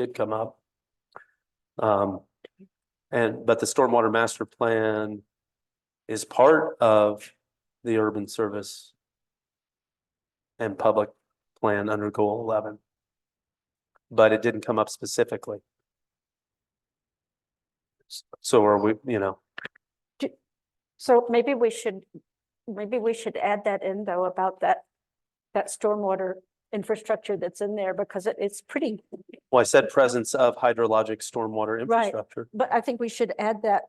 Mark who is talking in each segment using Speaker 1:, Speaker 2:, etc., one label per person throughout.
Speaker 1: did come up. Um, and, but the stormwater master plan is part of the urban service and public plan under goal eleven. But it didn't come up specifically. S- So are we, you know,
Speaker 2: So maybe we should, maybe we should add that in though about that, that stormwater infrastructure that's in there because it, it's pretty,
Speaker 1: well, I said presence of hydrologic stormwater
Speaker 2: Right.
Speaker 1: infrastructure.
Speaker 2: but I think we should add that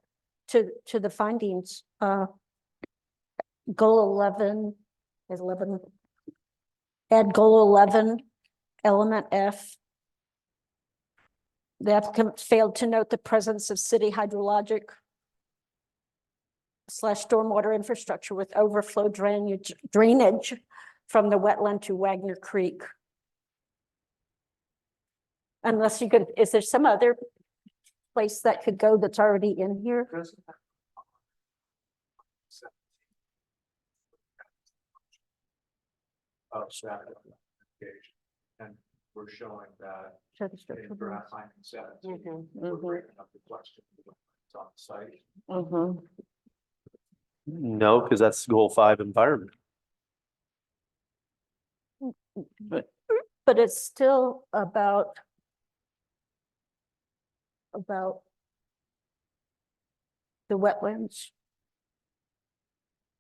Speaker 2: to, to the findings. Uh Goal eleven, is eleven. Add goal eleven, element F. The applicant failed to note the presence of city hydrologic slash stormwater infrastructure with overflow drainage, drainage from the wetland to Wagner Creek. Unless you could, is there some other place that could go that's already in here?
Speaker 3: of that application. And we're showing that
Speaker 2: Show the structure
Speaker 3: in
Speaker 2: below.
Speaker 3: draft finding seven.
Speaker 4: Mhm,
Speaker 3: We're
Speaker 4: mhm.
Speaker 3: bringing up the question that's on site.
Speaker 4: Mhm.
Speaker 1: No, because that's goal five environment.
Speaker 2: But it's still about about the wetlands.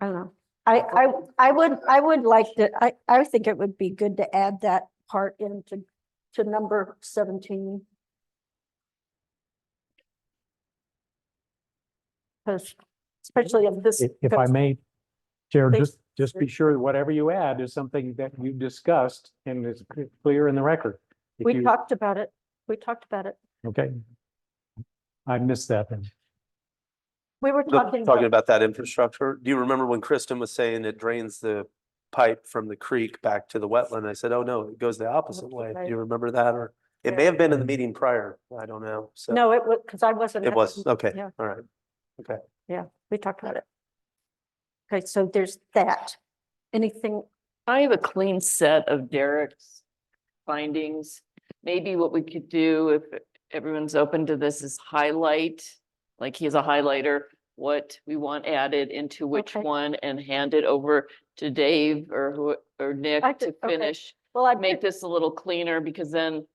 Speaker 2: I don't know. I, I, I would, I would like to, I, I think it would be good to add that part into, to number seventeen. Because especially of this.
Speaker 5: If, if I may, Chair,
Speaker 2: Please.
Speaker 5: just, just be sure that whatever you add is something that you discussed and is c- clear in the record. If
Speaker 2: We
Speaker 5: you-
Speaker 2: talked about it. We talked about it.
Speaker 5: Okay. I missed that then.
Speaker 2: We were
Speaker 1: The-
Speaker 2: talking.
Speaker 1: Talking about that infrastructure, do you remember when Kristen was saying it drains the pipe from the creek back to the wetland? I said, oh, no, it goes the opposite way. Do
Speaker 2: way.
Speaker 1: you remember that? Or it may have been in the meeting prior. I don't know. So
Speaker 2: No, it was, because I wasn't.
Speaker 1: it
Speaker 2: at-
Speaker 1: was, okay,
Speaker 2: yeah.
Speaker 1: all right.
Speaker 2: We talked about it. Okay, so there's that. Anything,
Speaker 4: I have a clean set of Derek's findings. Maybe what we could do if everyone's open to this is highlight, like he has a highlighter, what we want added into which
Speaker 2: Okay.
Speaker 4: one and hand it over to Dave or who, or Nick
Speaker 2: I
Speaker 4: to
Speaker 2: could- okay.
Speaker 4: finish.
Speaker 2: well, I
Speaker 4: Make
Speaker 2: make,
Speaker 4: this a little cleaner because then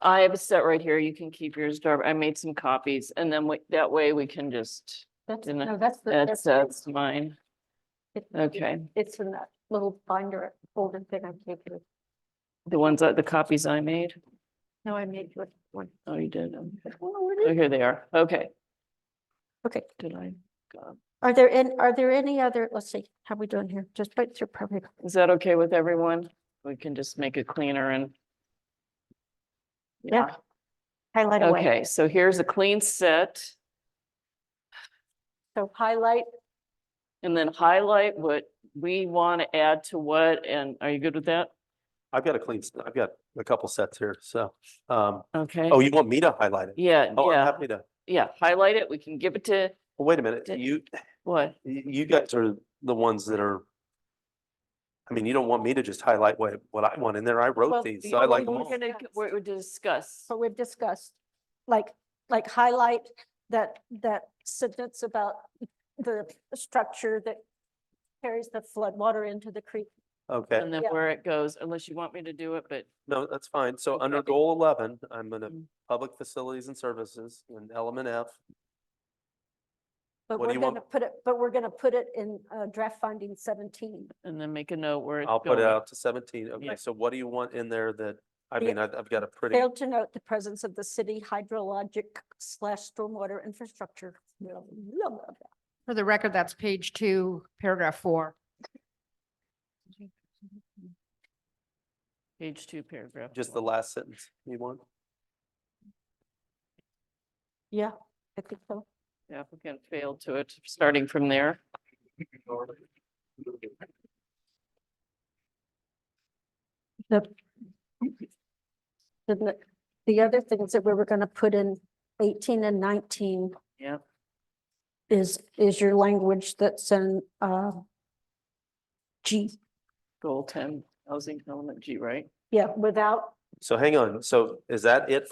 Speaker 4: I have a set right here. You can keep yours, Darby. I made some copies and then we- that way we can just,
Speaker 2: that's,
Speaker 4: in a-
Speaker 2: no, that's the.
Speaker 4: that's, uh, that's mine.
Speaker 2: it- it-
Speaker 4: Okay.
Speaker 2: It's in that little binder folder thing I gave you.
Speaker 4: The ones that, the copies I made.
Speaker 2: No, I made you one.
Speaker 4: Oh, you did. Okay.
Speaker 2: Oh, where
Speaker 4: Oh,
Speaker 2: did-
Speaker 4: here they are. Okay.
Speaker 2: Okay,
Speaker 4: Did I? God.
Speaker 2: are there, an- are there any other, let's see, how we doing here? Just wait through probably.
Speaker 4: Is that okay with everyone? We can just make it cleaner and.
Speaker 2: Yeah, Highlight away.
Speaker 4: Okay, so here's a clean set
Speaker 2: So highlight,
Speaker 4: and then highlight what we want to add to what and are you good with that?
Speaker 1: I've got a clean, s- I've got a couple sets here, so, um,
Speaker 4: Okay.
Speaker 1: oh, you want me to highlight it?
Speaker 4: Yeah,
Speaker 1: Oh, I'm
Speaker 4: yeah,
Speaker 1: happy to,
Speaker 4: yeah. Highlight it. We can give it to
Speaker 1: Well, wait a minute,
Speaker 4: Did-
Speaker 1: you,
Speaker 4: what?
Speaker 1: y- you guys are the ones that are, I mean, you don't want me to just highlight what, what I want in there. I
Speaker 2: Well,
Speaker 1: wrote these, so
Speaker 2: the
Speaker 1: I
Speaker 2: only
Speaker 1: like them
Speaker 2: one
Speaker 4: We're
Speaker 1: all.
Speaker 2: that-
Speaker 4: gonna, we're we're discuss.
Speaker 2: so we've discussed, like, like highlight that, that sentence about the structure that carries the floodwater into the creek.
Speaker 1: Okay.
Speaker 4: And then
Speaker 2: Yeah.
Speaker 4: where it goes, unless you want me to do it, but
Speaker 1: No, that's fine. So under
Speaker 4: Okay.
Speaker 1: goal eleven, I'm gonna,
Speaker 4: Mm.
Speaker 1: public facilities and services, and element F,
Speaker 2: But
Speaker 1: What do
Speaker 2: we're
Speaker 1: you
Speaker 2: gonna
Speaker 1: want?
Speaker 2: put it, but we're gonna put it in uh, draft finding seventeen.
Speaker 4: and then make a note where it's
Speaker 1: I'll put it
Speaker 4: going.
Speaker 1: out to seventeen.
Speaker 4: Yeah.
Speaker 1: Okay, so what do you want in there that, I
Speaker 2: The-
Speaker 1: mean, I've, I've got a pretty,
Speaker 2: Failed to note the presence of the city hydrologic slash stormwater infrastructure. Blah, blah, blah, blah.
Speaker 6: For the record, that's page two, paragraph four.
Speaker 4: Page two, paragraph.
Speaker 1: just the
Speaker 4: one.
Speaker 1: last sentence you want?
Speaker 2: Yeah, I think so.
Speaker 4: The Applicant failed to it, starting from there.
Speaker 2: Then the, the other things that we were gonna put in eighteen and nineteen.
Speaker 4: Yep.
Speaker 2: Is, is your language that's in, uh, G,
Speaker 4: Goal ten, housing element G, right?
Speaker 2: yeah, without
Speaker 1: So hang on. So is that it